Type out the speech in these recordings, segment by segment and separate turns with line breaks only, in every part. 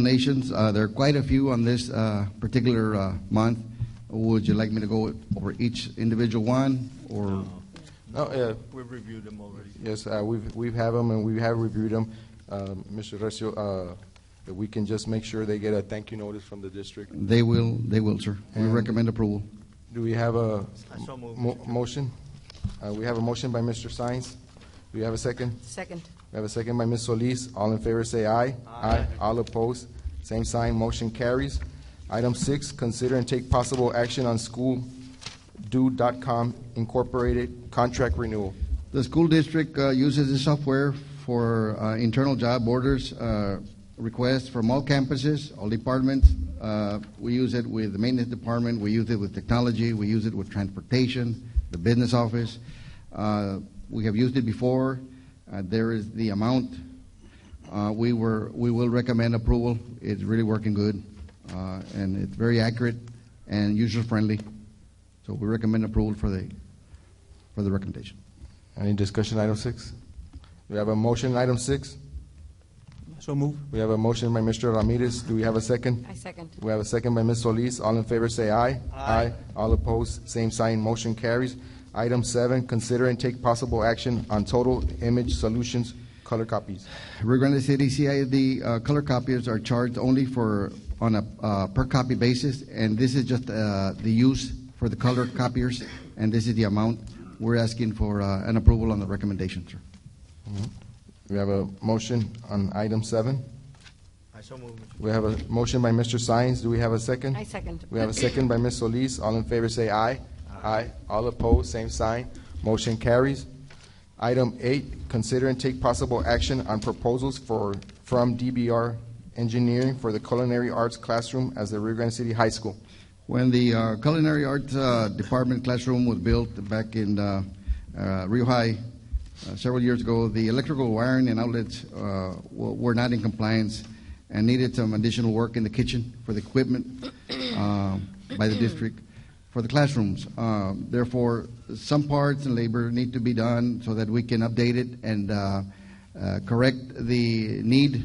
donations. Uh, there are quite a few on this uh, particular uh, month. Would you like me to go over each individual one, or?
No, uh,
We've reviewed them already.
yes, uh, we've, we've had them and we have reviewed them. Um, Mr. Recio, uh, if we can just make sure they get a thank you notice from the district.
They will, they will, sir. We
And-
recommend approval.
Do we have a
I so moved,
mo-
Mr. Chairman.
motion? Uh, We have a motion by Mr. Sines. Do we have a second?
Second.
We have a second by Ms. Solis. All in favor say aye. Aye. All opposed, same sign, motion carries. Item six, consider and take possible action on schooldo.com Incorporated contract renewal.
The school district uh, uses this software for uh, internal job orders, uh, requests from all campuses, all departments. Uh, We use it with the maintenance department, we use it with technology, we use it with transportation, the business office. Uh, We have used it before. Uh, There is the amount. Uh, We were, we will recommend approval. It's really working good, uh, and it's very accurate and user-friendly. So we recommend approval for the, for the recommendation.
Any discussion, item six? We have a motion, item six.
So move.
We have a motion by Mr. Ramirez. Do we have a second?
I second.
We have a second by Ms. Solis. All in favor, say aye. Aye. All opposed, same sign, motion carries. Item seven, consider and take possible action on Total Image Solutions color copies.
Rio Grande City CID uh, color copiers are charged only for, on a uh, per copy basis, and this is just uh, the use for the color copiers, and this is the amount. We're asking for uh, an approval on the recommendation, sir.
We have a motion on item seven.
I so move, Mr.
We have a motion by Mr. Sines. Do we have a second?
I second.
We have a second by Ms. Solis. All in favor, say aye. Aye. All opposed, same sign. Motion carries. Item eight, consider and take possible action on proposals for, from DBR Engineering for the Culinary Arts Classroom as the Rio Grande City High School.
When the uh, culinary arts uh, department classroom was built back in uh, uh, Rio High uh, several years ago, the electrical wiring and outlets uh, w- were not in compliance and needed some additional work in the kitchen for the equipment uh, by the district for the classrooms. Uh, therefore, some parts and labor need to be done so that we can update it and uh, uh, correct the need.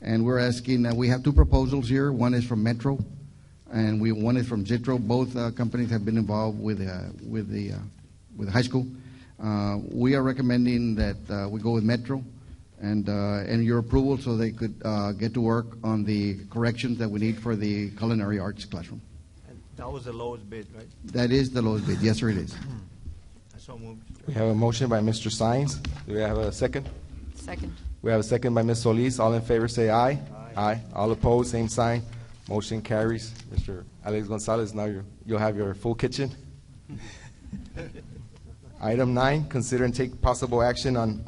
And we're asking, uh, we have two proposals here. One is from Metro, and we one is from Zitro. Both uh, companies have been involved with uh, with the uh, with the high school. Uh, we are recommending that uh, we go with Metro, and uh, and your approval so they could uh, get to work on the corrections that we need for the culinary arts classroom.
And that was the lowest bid, right?
That is the lowest bid. Yes, sir, it is.
I so move, Mr. Chairman.
We have a motion by Mr. Sines. Do we have a second?
Second.
We have a second by Ms. Solis. All in favor, say aye. Aye. All opposed, same sign. Motion carries. Mr. Alex Gonzalez, now you- you'll have your full kitchen. Item nine, consider and take possible action on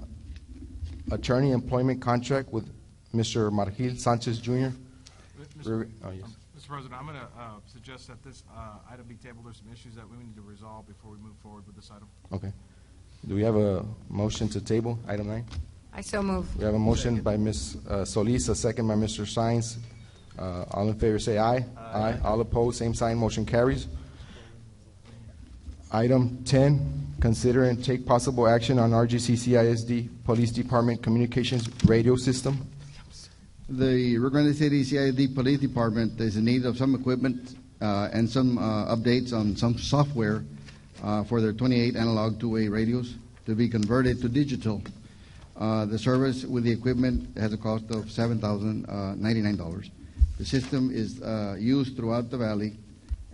attorney employment contract with Mr. Margil Sanchez Jr.
Mr.
Oh, yes.
Mr. President, I'm going to suggest that this uh, item be tabled. There's some issues that we need to resolve before we move forward with this item.
Okay. Do we have a motion to table, item nine?
I so move.
We have a motion by Ms. uh, Solis, a second by Mr. Sines. Uh, All in favor, say aye. Aye. All opposed, same sign, motion carries. Item 10, consider and take possible action on RGC CISD Police Department Communications Radio System.
The Rio Grande City CID Police Department is in need of some equipment uh, and some uh, updates on some software uh, for their 28 analog two-way radios to be converted to digital. Uh, The service with the equipment has a cost of $7,099. The system is uh, used throughout the valley,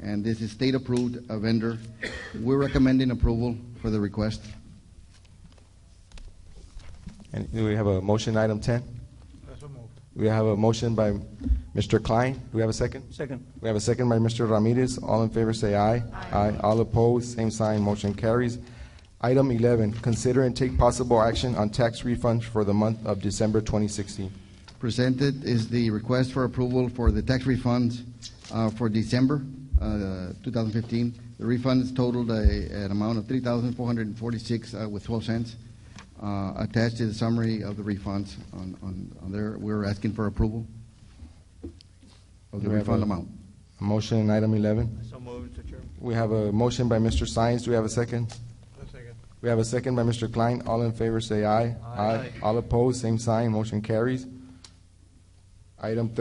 and this is state-approved uh, vendor. We're recommending approval for the request.
And do we have a motion, item 10?
I so move.
We have a motion by Mr. Klein. Do we have a second?
Second.
We have a second by Mr. Ramirez. All in favor, say aye. Aye. All opposed, same sign, motion carries. Item 11, consider and take possible action on tax refunds for the month of December 2016.
Presented is the request for approval for the tax refunds uh, for December uh, 2015. The refunds totaled a- an amount of $3,446 uh, with 12 cents. Uh, Attached is a summary of the refunds on- on on there. We're asking for approval of the
Do we have
refund
a-
amount.
A Motion on item 11.
I so move, Mr. Chairman.
We have a motion by Mr. Sines. Do we have a second?
second.
We have a second by Mr. Klein. All in favor, say aye. Aye. All opposed, same sign, motion carries. Item 13,